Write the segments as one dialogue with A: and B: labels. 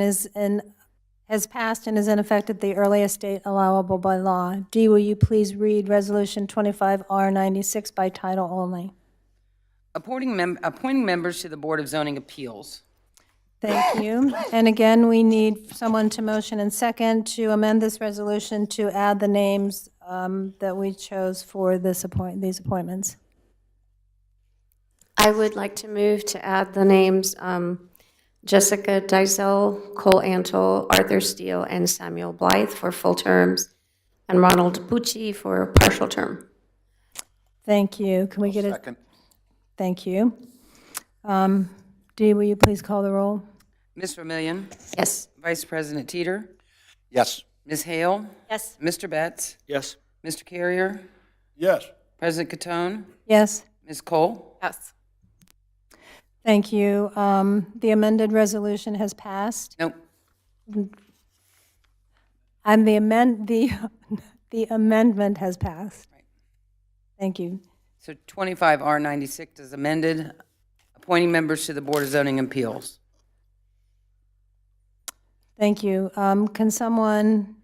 A: is in, has passed and is in effect at the earliest date allowable by law. D, will you please read Resolution 25R96 by title only?
B: Appointing mem, appointing members to the Board of Zoning Appeals.
A: Thank you. And again, we need someone to motion and second to amend this resolution to add the names um, that we chose for this appoint, these appointments.
C: I would like to move to add the names um, Jessica Dizel, Cole Antle, Arthur Steele, and Samuel Blythe for full terms, and Ronald Bucci for partial term.
A: Thank you. Can we get a,
D: Second.
A: thank you. Um, Dee, will you please call the roll?
B: Ms. Vermillion,
C: Yes.
B: Vice President Teeter,
D: Yes.
B: Ms. Hale,
A: Yes.
B: Mr. Betts,
D: Yes.
B: Mr. Carrier,
D: Yes.
B: President Catone,
A: Yes.
B: Ms. Cole.
E: Yes.
A: Thank you. Um, The amended resolution has passed.
B: Nope,
A: And the amend, the, the amendment has passed. Thank you.
B: so 25R96 is amended, appointing members to the Board of Zoning Appeals.
A: Thank you. Um, Can someone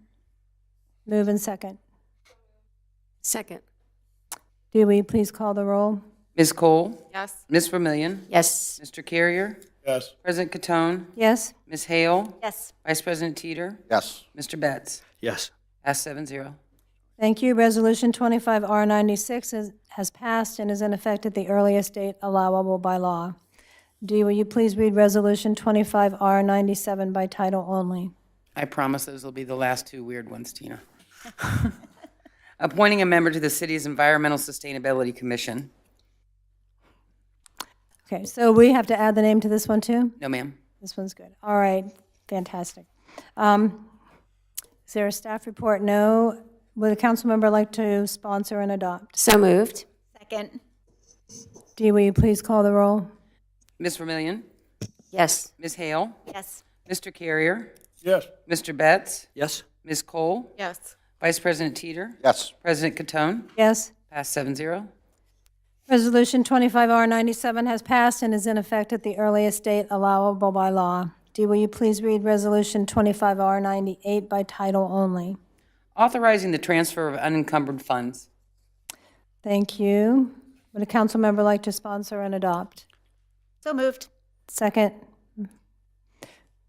A: move and second?
C: Second.
A: Do we please call the roll?
B: Ms. Cole,
E: Yes.
B: Ms. Vermillion,
C: Yes.
B: Mr. Carrier,
D: Yes.
B: President Catone,
A: Yes?
B: Ms. Hale,
A: Yes.
B: Vice President Teeter,
D: Yes.
B: Mr. Betts.
D: Yes.
B: Pass seven zero.
A: Thank you. Resolution 25R96 is- has passed and is in effect at the earliest date allowable by law. Dee, will you please read Resolution 25R97 by title only?
B: I promise those will be the last two weird ones, Tina. Appointing a member to the city's Environmental Sustainability Commission.
A: Okay, so we have to add the name to this one, too?
B: No, ma'am.
A: This one's good. All right, fantastic. Um, Is there a staff report? No. Would a council member like to sponsor and adopt?
C: So moved.
E: Second.
A: Dee, will you please call the roll?
B: Ms. Vermillion,
C: Yes.
B: Ms. Hale,
E: Yes.
B: Mr. Carrier,
D: Yes.
B: Mr. Betts,
D: Yes.
B: Ms. Cole,
E: Yes.
B: Vice President Teeter,
D: Yes.
B: President Catone.
A: Yes?
B: Pass seven zero.
A: Resolution 25R97 has passed and is in effect at the earliest date allowable by law. Dee, will you please read Resolution 25R98 by title only?
B: Authorizing the transfer of unencumbered funds.
A: Thank you. Would a council member like to sponsor and adopt?
E: So moved.
A: Second?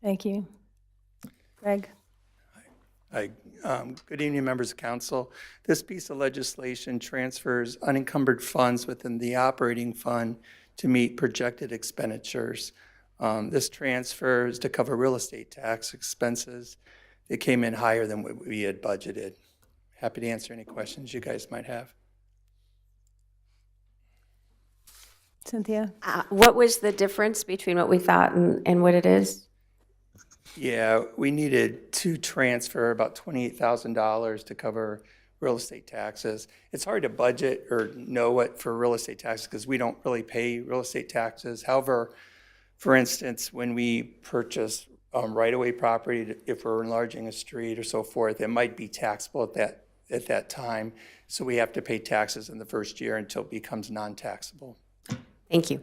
A: Thank you. Greg?
F: Hi, um, Good evening, members of council. This piece of legislation transfers unencumbered funds within the operating fund to meet projected expenditures. Um, This transfer is to cover real estate tax expenses. They came in higher than what we had budgeted. Happy to answer any questions you guys might have.
A: Cynthia?
C: Uh, What was the difference between what we thought and and what it is?
F: Yeah, we needed to transfer about twenty-eight thousand dollars to cover real estate taxes. It's hard to budget or know what for real estate taxes because we don't really pay real estate taxes. However, for instance, when we purchase um, right-of-way property, if we're enlarging a street or so forth, it might be taxable at that, at that time. So we have to pay taxes in the first year until it becomes non-taxable.
C: Thank you.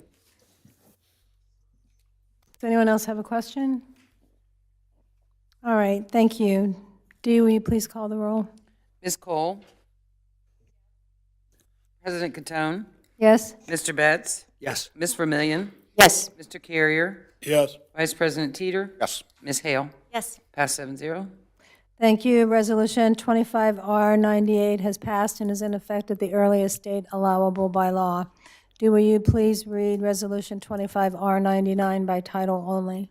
A: Does anyone else have a question? All right, thank you. Dee, will you please call the roll?
B: Ms. Cole, President Catone,
A: Yes?
B: Mr. Betts,
D: Yes.
B: Ms. Vermillion,
C: Yes.
B: Mr. Carrier,
D: Yes.
B: Vice President Teeter,
D: Yes.
B: Ms. Hale.
E: Yes.
B: Pass seven zero.
A: Thank you. Resolution 25R98 has passed and is in effect at the earliest date allowable by law. Dee, will you please read Resolution 25R99 by title only?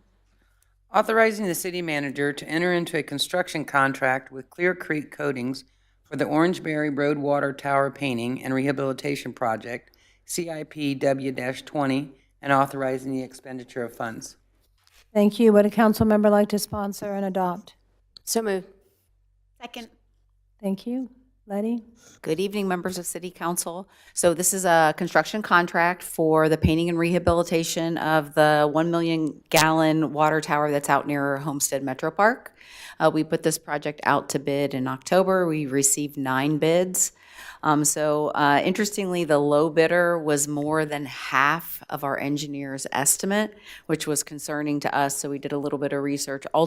B: Authorizing the city manager to enter into a construction contract with Clear Creek Coatings for the Orangeberry Road Water Tower Painting and Rehabilitation Project, CIP W-20, and authorizing the expenditure of funds.
A: Thank you. Would a council member like to sponsor and adopt?
C: So moved.
E: Second.
A: Thank you. Letty?
G: Good evening, members of City Council. So this is a construction contract for the painting and rehabilitation of the 1 million gallon water tower that's out near Homestead Metro Park. Uh, We put this project out to bid in October. We received nine bids. Um, So uh, interestingly, the low bidder was more than half of our engineer's estimate, which was concerning to us, so we did a little bit of research.